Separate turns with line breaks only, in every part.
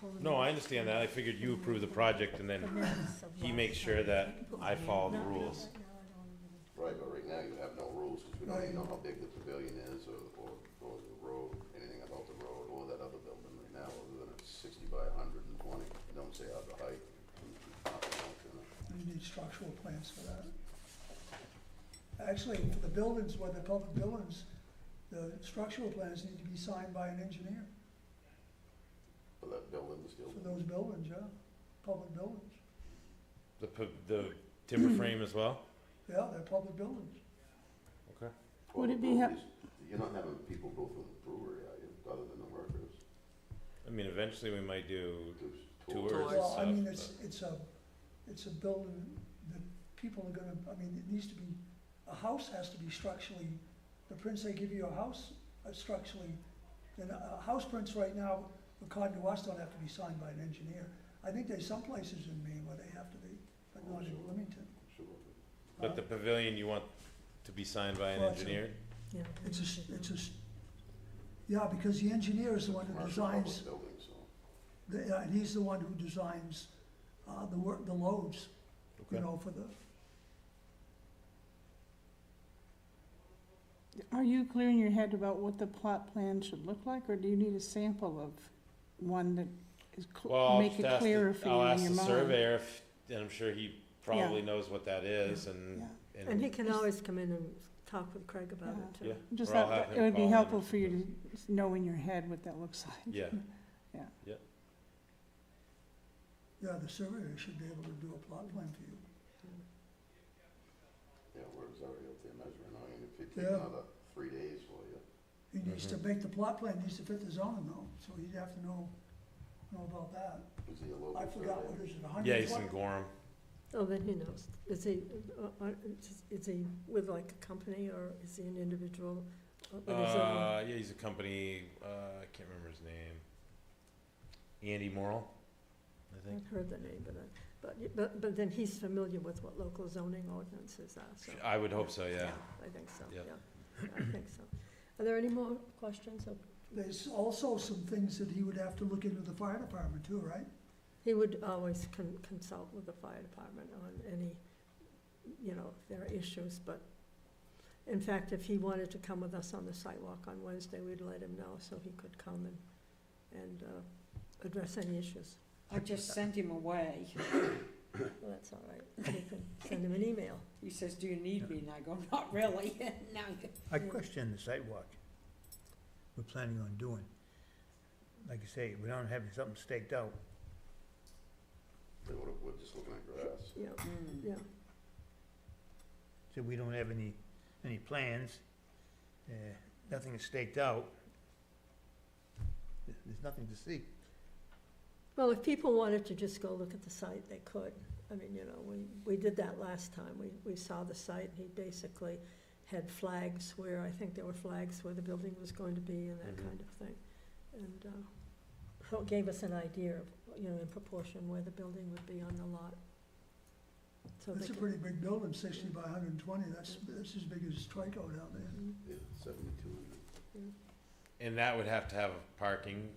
pull the
No, I
minutes.
understand that. I figured you approve the project and
The
then
minutes of
he
last
makes sure
time.
that I follow the
No, no,
rules.
no, I don't even-
Right, but right now you have no rules, because we don't even know how big the pavilion is, or, or, or the road, anything about the road, or that other building right now, other than it's sixty by hundred and twenty, don't say out the height.
You need structural plans for that. Actually, for the buildings, where the public buildings, the structural plans need to be signed by an engineer
But that building is still,
for those buildings, yeah, public buildings.
the, p- the timber
Hmm.
frame as well?
Yeah, they're public buildings.
Okay.
well,
Would
the
it be hap-
breweries, you're not having people go through the brewery, are you, other than the workers?
I mean, eventually we might do
There's
tours and
Tours.
Well, I mean,
stuff.
it's, it's a, it's a building that people are gonna, I mean, it needs to be, a house has to be structurally, the prints they give you a house are structurally, and uh, house prints right now, according to us, don't have to be signed by an engineer. I think there's some places in Maine where they have to be, but not in Wilmington.
Sure.
but- But the pavilion you want to be signed by an
Well, it's a-
engineer?
Yeah.
It's a, s- it's a, s- yeah, because the engineer is the one who
Commercial public
designs,
Building, so,
the- yeah, and he's the one who designs, uh, the work, the loads, you
Okay.
know, for the,
Are you clear in your head about what the plot plan should look like, or do you need a sample of one that is, cl-
Well, I'll
make
just
it
ask,
clearer
the-
for you
I'll
in
ask
your
the
mind?
surveyor if, and I'm sure he probably knows what that is and,
Yeah.
And he
and,
can always come in and talk with Craig about it,
yeah.
too.
Just
or I'll
that,
have
it
him
would
call
be
in or
helpful for
something.
you to s- know in your head what that looks like.
Yeah.
Yeah.
Yeah,
yeah, the surveyor should be able to do a plot plan for you.
yeah, work's already up there measuring, I mean, if it takes
Yeah.
another three days for you.
He needs
Mm-hmm.
to make the plot plan, needs to fit the zoning though, so he'd have to know, know about that.
Is he a local
I forgot what
surveyor?
is it,
yeah, he's in
120?
Gorham.
Oh, then he knows. Is he, uh, uh, is he with like a company, or is he an individual? on his own?
Uh, yeah, he's a company, uh, I can't remember his name. Andy Morrell, I think.
I've heard the name, but, I- but, but, but then he's familiar with what local zoning ordinances are, so.
I would hope so, yeah.
I think so, yeah,
Yeah.
I think so. Are there any more questions? of-
There's also some things that he would have to look into the fire department too, right?
He would always con- consult with the fire department on any, you know, if there are issues, but in fact, if he wanted to come with us on the sidewalk on Wednesday, we'd let him know so he could come and, and, uh, address any issues.
I just sent him away.
Well, that's all right, we can send him an email.
He says, do you need me? And I go, not really. Now,
I question the sidewalk we're planning on doing. Like you say, we don't have something staked out.
They would've- We're just looking at grass.
Yeah,
mm,
yeah,
So we don't have any, any plans, uh, nothing is staked out. There- There's nothing to see.
well, if people wanted to just go look at the site, they could. I mean, you know, we, we did that last time, we, we saw the site, and he basically had flags where, I think there were flags where the building was going to be and that
Mhm.
kind of thing. And, uh, so it gave us an idea of, you know, in proportion where the building would be on the lot. So they
That's a
could-
pretty big building, sixty by hundred and twenty, that's, that's as big as Trico down there.
Mm,
Yeah, seventy-two hundred.
And that would have to have parking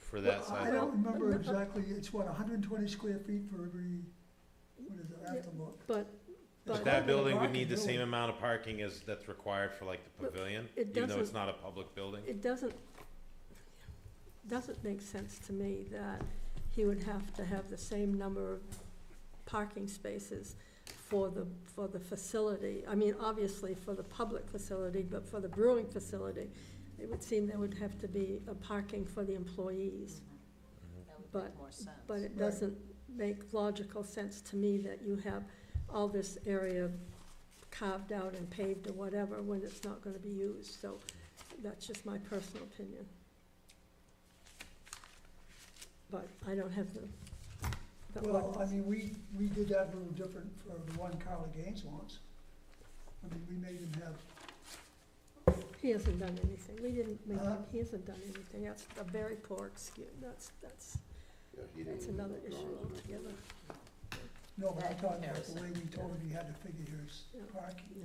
for that
Well, I
sidewalk.
don't remember exactly, it's what, hundred and twenty square feet for every, what is it, I have to look.
But,
But
but.
that
Parking,
building would
parking,
need the
really.
same amount of parking as that's required for like the
But
pavilion,
it
even though it's
doesn't-
not a public building?
It doesn't, doesn't make sense to me that he would have to have the same number of parking spaces for the, for the facility. I mean, obviously for the public facility, but for the brewing facility, it would seem there would have to be a parking for the employees.
Mm-hmm.
that would
But-
make more sense.
But it doesn't make logical sense to me that you have all this area carved out and paved or whatever when it's not gonna be used, so that's just my personal opinion. But I don't have the, the
Well, I
ordinance.
mean, we, we did that a little different for the one Carla Gaines wants. I mean, we made him have
He hasn't done anything, we didn't, make
Huh?
him- he hasn't done anything, that's a very poor excuse, that's, that's,
Yeah, he didn't
that's
even
another
know
issue
Don's original.
altogether,
No, but I
That
thought about the way
comparison.
we told him you had to figure his
Yeah.
parking,
yeah,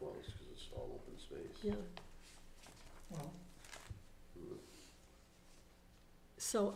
Well, it's 'cause it's all open space. Mm-hmm.
yeah.
well.
Mm.
So